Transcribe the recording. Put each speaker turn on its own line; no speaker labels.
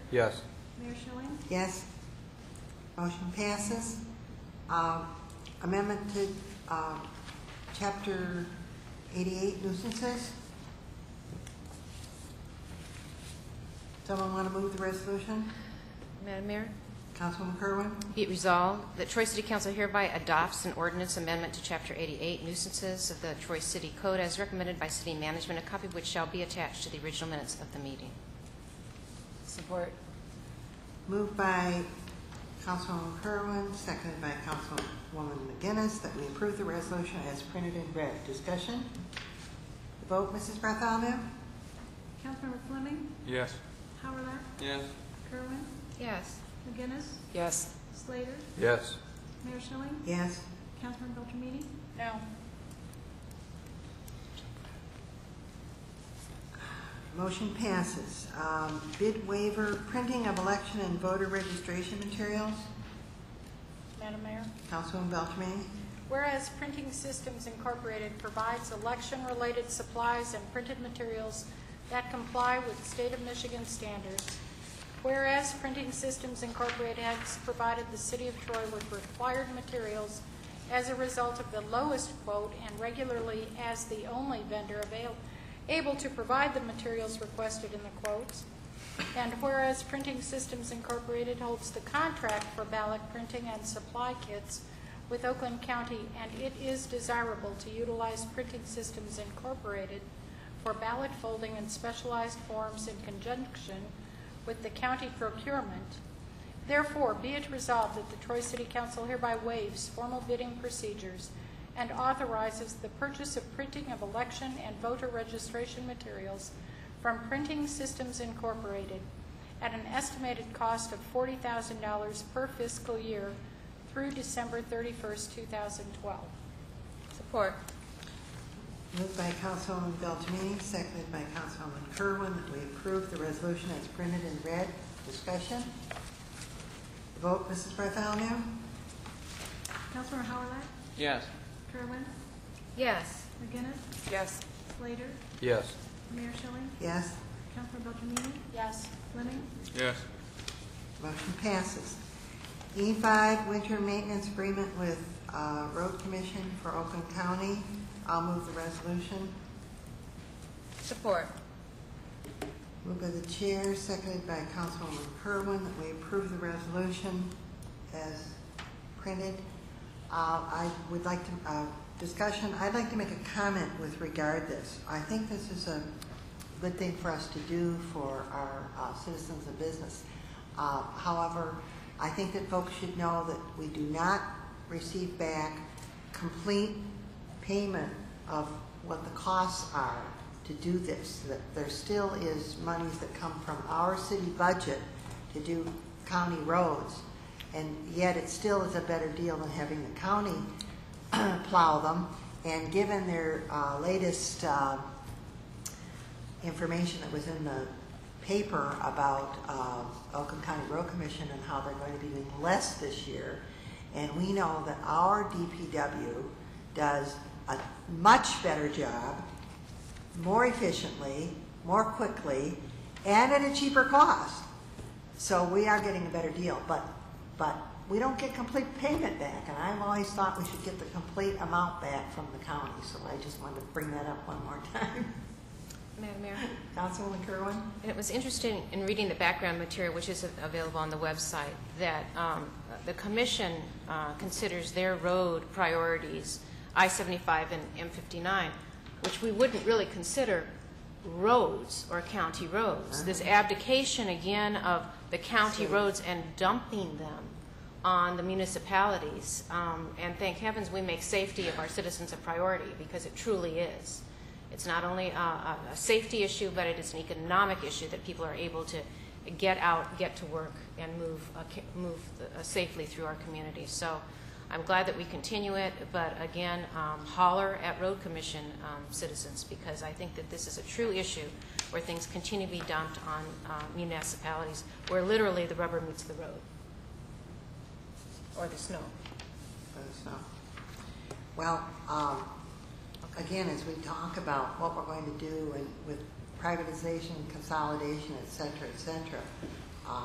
Yes.
Mayor Schilling?
Yes. Motion passes. Um, Amendment to um, Chapter 88 nuisances. Someone want to move the resolution?
Madam Mayor,
Councilwoman Kerwin?
be it resolved that Troy City Council hereby adopts an ordinance amendment to Chapter 88 nuisances of the Troy City Code as recommended by city management, a copy of which shall be attached to the original minutes of the meeting.
Support.
Moved by Councilwoman Kerwin, seconded by Councilwoman McGinnis, that we approve the resolution as printed in red. Discussion? Vote, Mrs. Bartholomew?
Councilmember Fleming?
Yes.
Howard,
Yes.
Kerwin?
Yes.
McGinnis?
Yes.
Slater?
Yes.
Mayor Schilling?
Yes.
Councilmember Beltramini?
No.
Motion passes. Um, Bid waiver, printing of election and voter registration materials.
Madam Mayor.
Councilwoman Beltrame?
Whereas Printing Systems Incorporated provides election-related supplies and printed materials that comply with state of Michigan standards. Whereas Printing Systems Incorporated has provided the city of Troy with required materials as a result of the lowest quote and regularly as the only vendor avail, able to provide the materials requested in the quotes. And whereas Printing Systems Incorporated holds the contract for ballot printing and supply kits with Oakland County, and it is desirable to utilize Printing Systems Incorporated for ballot folding and specialized forms in conjunction with the county procurement. Therefore, be it resolved that the Troy City Council hereby waives formal bidding procedures and authorizes the purchase of printing of election and voter registration materials from Printing Systems Incorporated at an estimated cost of $40,000 per fiscal year through December 31st, 2012.
Support.
Moved by Councilwoman Beltrame, seconded by Councilwoman Kerwin, that we approve the resolution as printed in red. Discussion? Vote, Mrs. Bartholomew?
Councilmember Howard,
Yes.
Kerwin?
Yes.
McGinnis?
Yes.
Slater?
Yes.
Mayor Schilling?
Yes.
Councilmember Beltramini?
Yes.
Fleming?
Yes.
Motion passes. E5, winter maintenance agreement with uh, Road Commission for Oakland County. I'll move the resolution.
Support.
Moved by the chair, seconded by Councilwoman Kerwin, that we approve the resolution as printed. Uh, I would like to, uh, discussion, I'd like to make a comment with regard this. I think this is a good thing for us to do for our uh, citizens and business. Uh, However, I think that folks should know that we do not receive back complete payment of what the costs are to do this. That There still is monies that come from our city budget to do county roads, and yet it still is a better deal than having the county plow them. And given their uh, latest uh, information that was in the paper about uh, Oakland County Road Commission and how they're going to be doing less this year. And we know that our DPW does a much better job, more efficiently, more quickly, and at a cheaper cost. So we are getting a better deal, but, but we don't get complete payment back, and I've always thought we should get the complete amount back from the county, so I just wanted to bring that up one more time.
Madam Mayor?
Councilwoman Kerwin?
And it was interesting in reading the background material, which is available on the website, that um, the commission uh, considers their road priorities, I-75 and M-59, which we wouldn't really consider roads or county roads. This abdication, again, of the county roads and dumping them on the municipalities. Um, And thank heavens, we make safety of our citizens a priority, because it truly is. It's not only a, a, a safety issue, but it is an economic issue that people are able to get out, get to work, and move, uh, ca- move uh, safely through our community. So I'm glad that we continue it, but again, um, holler at Road Commission um, citizens, because I think that this is a true issue where things continue to be dumped on uh, municipalities, where literally the rubber meets the road.
Or the snow.
Let us know. Well, um, again, as we talk about what we're going to do and with privatization, consolidation, et cetera, et cetera,